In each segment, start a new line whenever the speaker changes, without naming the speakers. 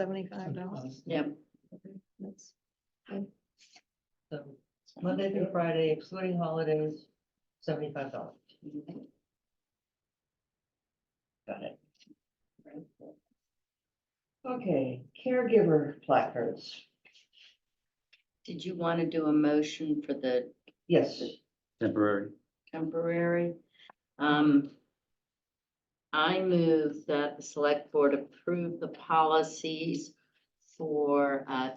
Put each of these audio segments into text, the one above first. Seventy-five dollars.
Yep.
That's
So Monday through Friday, excluding holidays, seventy-five dollars. Got it. Okay, caregiver placards.
Did you want to do a motion for the
Yes,
Temporary.
temporary? Um, I move that the select board approve the policies for uh,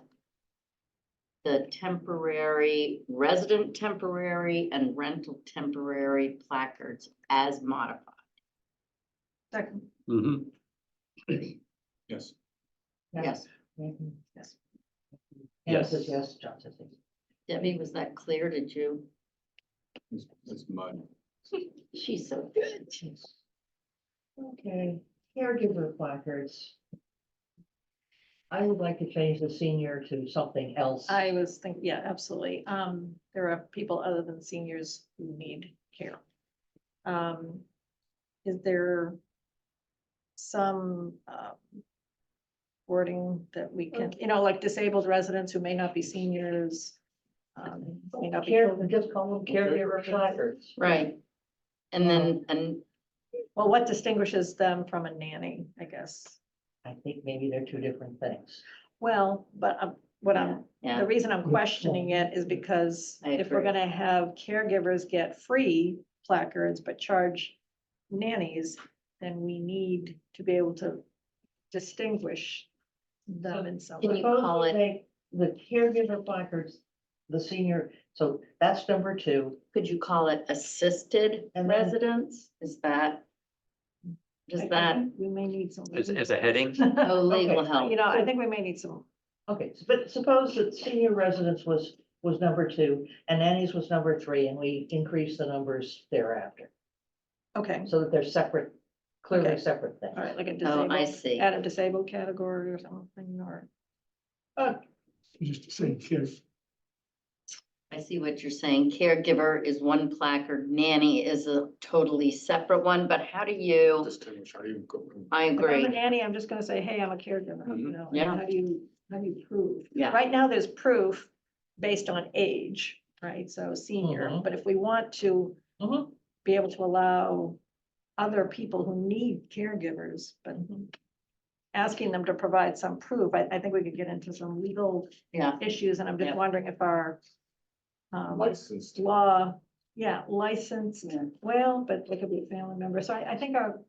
the temporary, resident temporary and rental temporary placards as modified.
second,
Mm-hmm.
Yes.
Yes,
Yes.
Yes.
Anna
Yes.
says Mm-hmm. yes, John says yes.
Debbie, was that clear? Did you?
It's it's mud.
She's so good.
Yes. Okay, caregiver placards. I would like to change the senior to something else.
I was thinking, yeah, absolutely. Um, there are people other than seniors who need care. Um, is there some, um, wording that we can, you know, like disabled residents who may not be seniors? Um, may not be
Care,
children.
just call them caregiver placards.
Right. And then, and
Well, what distinguishes them from a nanny, I guess?
I think maybe they're two different things.
Well, but um, what I'm
Yeah,
The reason I'm questioning it is because
I
if we're
agree.
gonna have caregivers get free placards but charge nannies, then we need to be able to distinguish them in some
Can
way.
you call
Suppose
it-
we make The caregiver placards, the senior, so that's number two.
could you call it assisted
And then-
residents? Is that?
I- I
Does that,
think We may need some.
As, as a heading?
oh, legal
Okay,
help?
You know, I think we may need some,
Okay, s- but suppose that senior residence was, was number two and nannies was number three and we increase the numbers thereafter.
okay,
So that they're separate, clearly
Okay.
separate things.
all right, like a
Oh, I
disabled,
see.
add a disabled category or something, or,
Just to say, care,
I see what you're saying. Caregiver is one placard, nanny is a totally separate one, but how do you?
distinguish, how do you go?
I
if I'm a
agree.
nanny, I'm just gonna say, hey, I'm a caregiver, you know, and
Mm-hmm. yeah.
how do you, how do you prove?
Yeah.
Right now, there's proof based on age, right? So senior,
Mhm.
but if we want to
Mm-hmm.
Mhm.
be able to allow other people who need caregivers, but asking them to provide some proof, I, I think we could get into some legal
Yeah.
issues, and I'm just
Yeah.
wondering if our um,
Licensed.
law, yeah, licensed,
Yeah.
well, but they could be a family member, so I, I think our,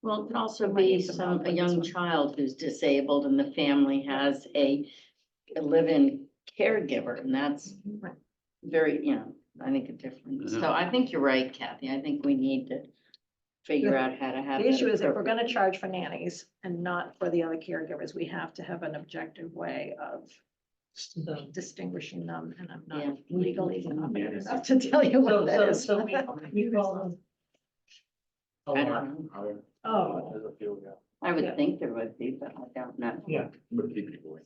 Well, it could also
We might need
be
some
some,
help
a
with this
young
one.
child who's disabled and the family has a a live-in caregiver and that's very, you know, I think a different. So
Mhm.
I think you're right, Kathy. I think we need to figure out how to have.
the
that
issue is if we're
appropriate.
gonna charge for nannies and not for the other caregivers, we have to have an objective way of
So-
distinguishing them, and I'm
Yeah.
not legally
Mhm.
competent enough to tell you what
So,
that
so,
is.
so we, we call them. A lot,
I don't know.
Higher.
Oh,
There's a few, yeah.
I
Yeah.
would think there would be, but I don't know.
yeah.
But people.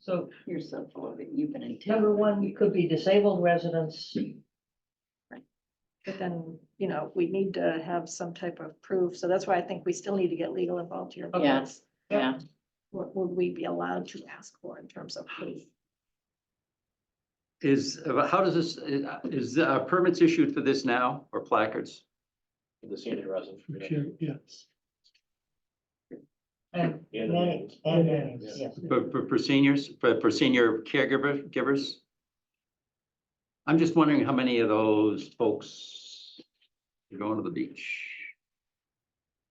So
You're so full of it. You've been in. town.
number one, you could be disabled residents.
but then, you know, we need to have some type of proof, so that's why I think we still need to get legal involved here.
Yeah.
because
Yeah,
What would we be allowed to ask for in terms of proof?
Is, uh, how does this, is uh, permits issued for this now or placards?
The senior resident.
Yes.
And
Yeah, the
nannies,
nannies.
and nannies, yes.
For, for, for seniors, for, for senior caregiver, givers? I'm just wondering how many of those folks are going to the beach?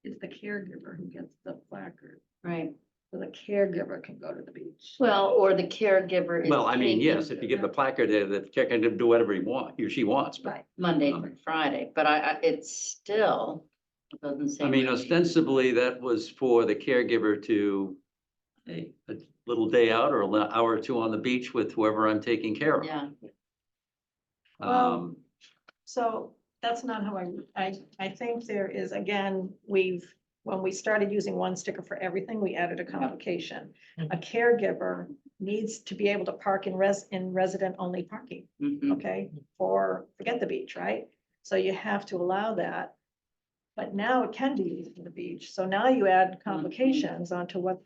It's the caregiver who gets the placard,
right.
so the caregiver can go to the beach.
Well, or the caregiver. is
Well, I mean,
taking
yes, if you give the placard there, the check can do whatever he wants, he or she wants, but
Right,
Monday through Friday, but I, I, it's still it doesn't say.
I mean,
when-
ostensibly, that was for the caregiver to a, a little day out or an hour or two on the beach with whoever I'm taking care of.
Yeah,
Um,
so that's not how I, I, I think there is, again, we've, when we started using one sticker for everything, we added a complication. A caregiver needs to be able to park in res, in resident-only parking.
mhm.
okay, for, forget the beach, right? So you have to allow that. But now it can be used for the beach, so now you add complications onto what